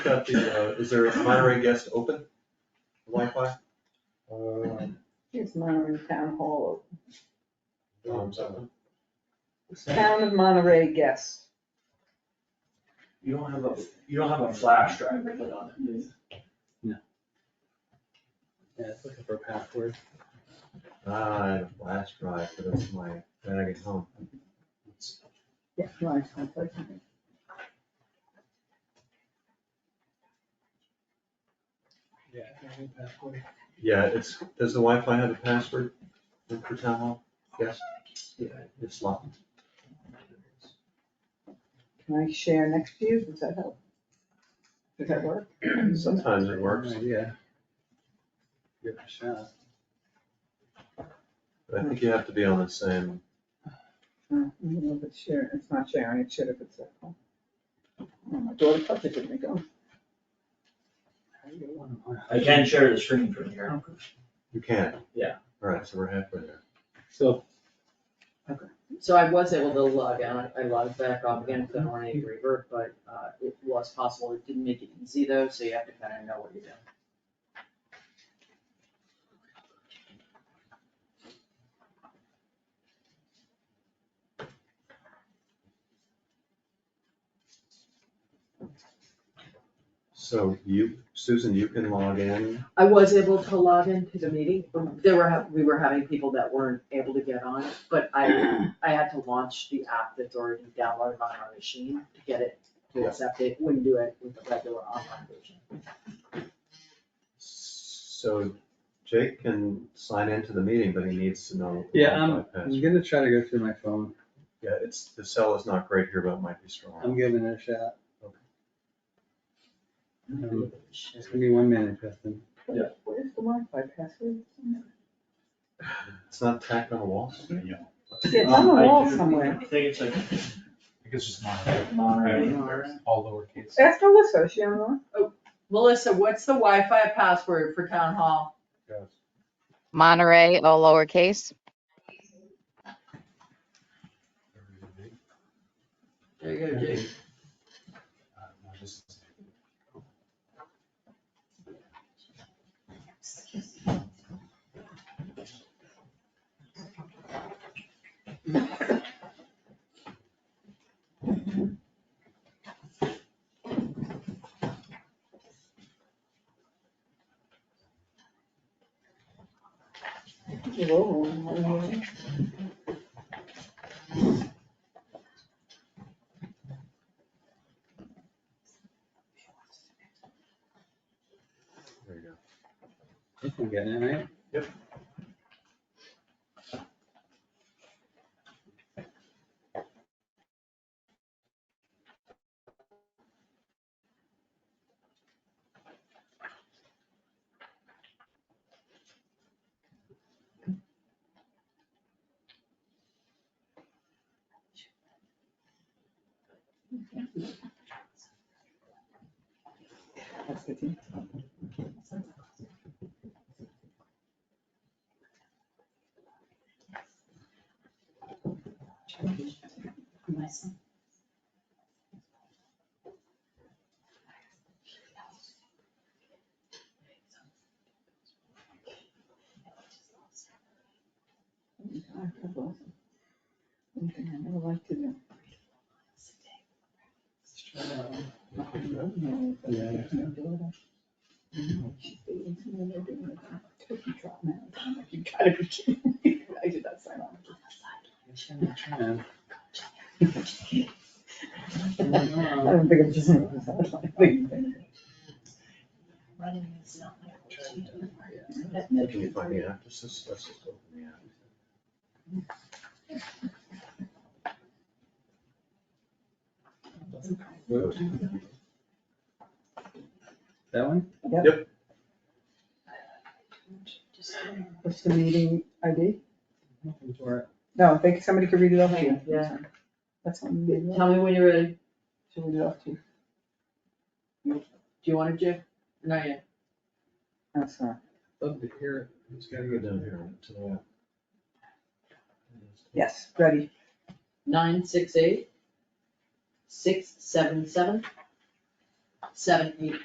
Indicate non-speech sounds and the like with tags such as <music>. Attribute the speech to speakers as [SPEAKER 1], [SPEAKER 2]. [SPEAKER 1] got the, uh, is there a Monterey guest open Wi-Fi?
[SPEAKER 2] Um,
[SPEAKER 3] Here's Monterey Town Hall,
[SPEAKER 2] um, so-
[SPEAKER 3] Town of Monterey guest.
[SPEAKER 4] You don't have a, you don't have a flash drive to put on it, do you?
[SPEAKER 5] Yeah, it's looking for a password.
[SPEAKER 1] Ah, I had a flash drive, but it's my, when I get home.
[SPEAKER 3] Yeah, nice, unfortunately.
[SPEAKER 5] Yeah. Password.
[SPEAKER 1] Yeah, it's, does the Wi-Fi have a password for town hall? Yes? Yeah, it's locked.
[SPEAKER 3] Can I share next to you? Does that help? Does that work?
[SPEAKER 1] Sometimes it works,
[SPEAKER 5] Yeah. Give it a shot.
[SPEAKER 1] but I think you have to be on the same,
[SPEAKER 3] No, I don't know if it's sharing, it's not sharing, it should have, it's. at home. Oh, My daughter touched it, didn't it go?
[SPEAKER 4] I can share the screen from here.
[SPEAKER 1] you can.
[SPEAKER 4] Yeah.
[SPEAKER 1] All right, so we're halfway there.
[SPEAKER 5] So,
[SPEAKER 6] So I was able to log out, I logged back off again, because I don't want any revert, but uh, it was possible, it didn't make it easy though, so you have to kind of know what you're doing.
[SPEAKER 1] So you, Susan, you can log in.
[SPEAKER 6] I was able to log into the meeting, there were, ha- we were having people that weren't able to get on, but I, I had to launch the app that's already downloaded on our machine to get it to
[SPEAKER 1] Yeah.
[SPEAKER 6] accept it, wouldn't do it with the regular online version.
[SPEAKER 1] So Jake can sign into the meeting, but he needs to know. the
[SPEAKER 5] yeah, I'm,
[SPEAKER 1] Wi-Fi
[SPEAKER 5] I'm
[SPEAKER 1] password.
[SPEAKER 5] gonna try to go through my phone.
[SPEAKER 1] Yeah, it's, the cell is not great here, but it might be strong.
[SPEAKER 5] I'm giving it a shot.
[SPEAKER 1] Okay.
[SPEAKER 5] Um, Just give me one minute, Justin.
[SPEAKER 4] Yeah.
[SPEAKER 3] Where's the Wi-Fi password?
[SPEAKER 1] It's not tacked on the wall.
[SPEAKER 3] Yeah, it's on the
[SPEAKER 4] Um, I
[SPEAKER 3] wall
[SPEAKER 4] do-
[SPEAKER 3] somewhere.
[SPEAKER 4] I think it's like
[SPEAKER 2] I guess just Monterey,
[SPEAKER 6] Monterey.
[SPEAKER 2] all lowercase.
[SPEAKER 3] Ask Melissa, is she on the line?
[SPEAKER 6] Oh, Melissa, what's the Wi-Fi password for town hall?
[SPEAKER 1] Yes.
[SPEAKER 7] Monterey, all lowercase.
[SPEAKER 6] There you go, Jake.
[SPEAKER 3] Whoa, whoa,
[SPEAKER 1] There you go.
[SPEAKER 5] I think I'm getting it, right?
[SPEAKER 1] Yep.
[SPEAKER 3] whoa. That's the team. Something I never like to do.
[SPEAKER 5] Yeah.
[SPEAKER 3] You gotta be kidding me. <laughs> I did not sign on.
[SPEAKER 5] I'm trying.
[SPEAKER 3] I don't think I'm just.
[SPEAKER 1] Can you find the app? This is, let's just open the app.
[SPEAKER 5] Whoops. <laughs> That one?
[SPEAKER 3] What's the meeting ID?
[SPEAKER 5] Looking for it.
[SPEAKER 3] No, I think somebody could read it off to you.
[SPEAKER 6] Yeah.
[SPEAKER 3] That's what we need.
[SPEAKER 6] Tell me when you're ready. Do
[SPEAKER 3] Should read it off to you.
[SPEAKER 6] you want it, Jake? Not yet.
[SPEAKER 3] That's not.
[SPEAKER 5] Love to hear it. Just
[SPEAKER 1] It's gotta go down here to the app.
[SPEAKER 3] Yes, ready.
[SPEAKER 6] Nine six eight, six seven seven, seven, eight